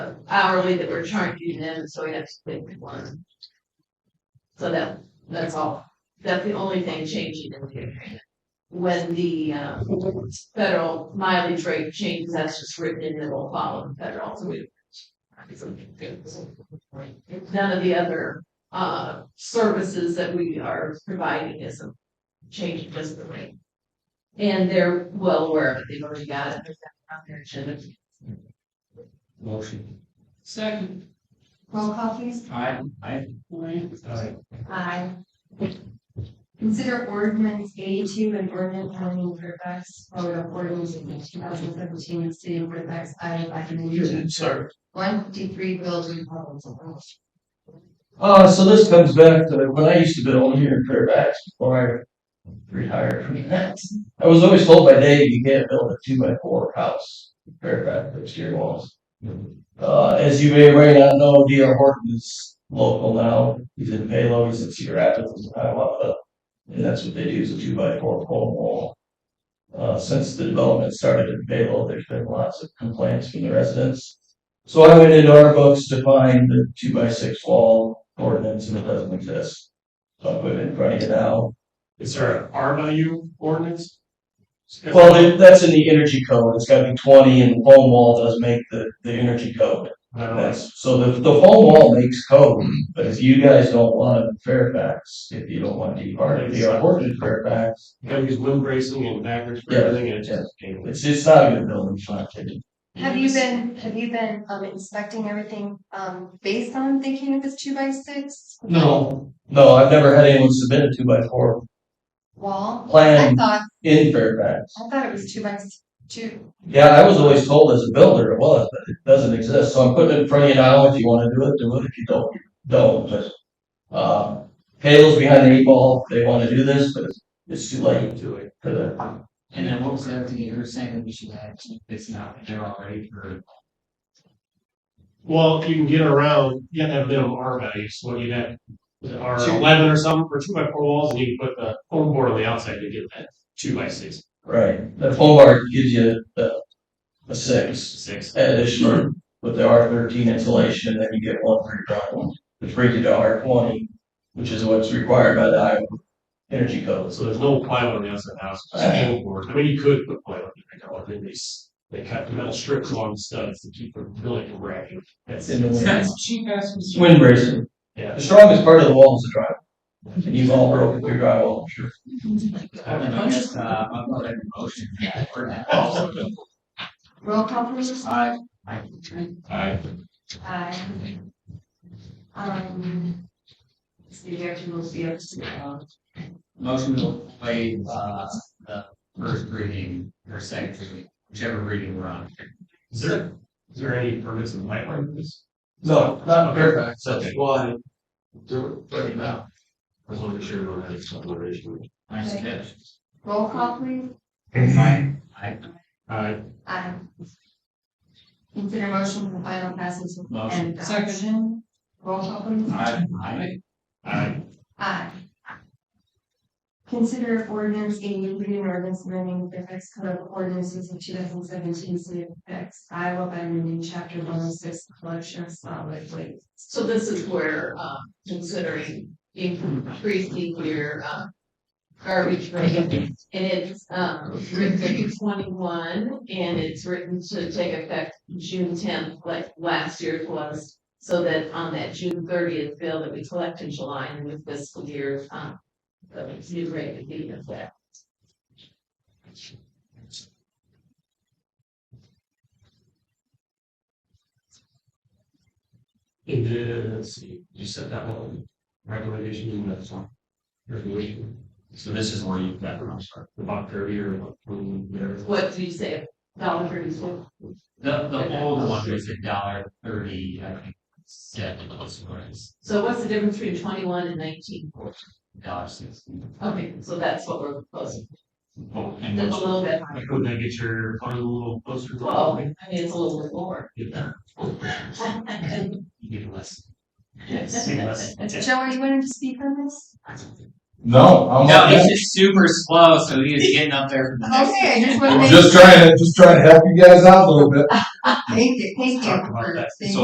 hourly that we're charging them, so we have to pick one. So that, that's all, that's the only thing changing in the agreement. When the, uh, federal mileage rate changes, that's just written in, it will follow the federal, so we. None of the other, uh, services that we are providing is a change, just the rate. And they're well aware of it, they've already got it, they're on their agenda. Motion. Second. Roll call please. Aye. Aye. Aye. Aye. Consider ordinance eighty-two and ordinance twenty Fairfax, Florida, ordinance two thousand seventeen, the city of Fairfax, Iowa, by the name of. Sir. One fifty-three building proposal. Uh, so this comes back to when I used to build here in Fairfax before I retired from that. I was always told by Dave, you can't build a two by four house, in Fairfax, exterior walls. Uh, as you may or may not know, D.R. Horton is local now. He's in Valo, he's in Cedar Rapids, he's in Hiawatha. And that's what they do is a two by four pole wall. Uh, since the development started in Valo, there's been lots of complaints from the residents. So I went into our books to find the two by six wall ordinance and it doesn't exist. So I put it in front of you now. Is there an R value ordinance? Well, it- that's in the energy code. It's gotta be twenty and foam wall does make the, the energy code. I don't know. That's, so the, the foam wall makes code, but if you guys don't want it in Fairfax, if you don't want to be part of the ordinance in Fairfax, You gotta use limb bracing and backwards for Yeah. everything and it's just. dangerous. it's, it's not a good building, it's not good. Have you been, have you been um inspecting everything um based on thinking of this two by six No, No, I've never had anyone submit a two by four wall? I plan thought, in Fairfax. I thought it was two by s- two. Yeah, I was always told as a builder it was, but it doesn't exist, so I'm putting it in front of you now, if you wanna do it, do it, if you don't, don't, but, um, Hale's behind the eight ball, they wanna do this, but it's, it's too late do it. for the, And then what was that thing you were saying we should add, it's not, they're already for. Well, you can get around, you have to have minimum R values, so you have R Two. eleven or something for two by four walls and you can put the foam board on the outside to get that two by six, right, the foam bar gives you the, a six six. additional with the R thirteen insulation, then you get one for your drawing, which brings you to R twenty, which is what's required by the Iowa Energy Code. So there's no plywood on the outside of the house, it's uh, just foam board. I mean, you could put plywood, in there, but then they, s- they cut metal strips along the studs to keep the building from cracking. That's In the it. wind. cheap ass. Wind bracing. Yeah. The strongest part of the wall is the drywall. And you've all broken through drywall, I'm sure. I don't know, Oh. I guess, uh, upload every motion for that or that. I, Roll call please. I. Aye. Aye. Um. So you have uh, to move the other side. Motion to waive, uh, the first reading or second reading, whichever reading we're on. Is there, is there any permits in the pipeline for this? No, not Fairfax. Okay. Well, I do it right now. I was wondering if you were having some other issue. I suggest. Roll call please. I, I, Aye. Aye. Consider motion for final passage Motion. and adoption. Roll call please. I, I, Aye. Aye. Consider ordinance eighty-three and ordinance amending Fairfax Code of Ordinances of two thousand seventeen, City of Fairfax, Iowa, by amending chapter one oh six, collection of solid waste. So this is where, uh, considering increasing your, uh, garbage rate. And it's, um, written in twenty-one and it's written to take effect June tenth, like last year's was. So that on that June thirtieth bill that we collect in July and with fiscal year, um, the new rate would be in effect. And then, let's see, you said that one, regulation, you know, that's one. Regulation. So this is where you, that, I'm sorry, the box earlier, what, whatever. What do you say, dollar thirty-four? the, the old one was a dollar thirty, I think, seven, was what it is, So what's the difference between twenty-one and nineteen? dollar sixty. Okay, so that's what we're proposing. Oh, and That's a those- little bit higher. Like, would that get your, fund a little closer? to- Well, I mean, it's a little bit more. Get that, you get less. Yes. Get less. Joe, you wanted to speak on this? No, No, I'm not- he's just super slow, so he is getting up there. for the next- Okay, I just want to I'm make. just trying to, just trying to help you guys out a little bit. Thank you, thank you. Talk about that. Thank So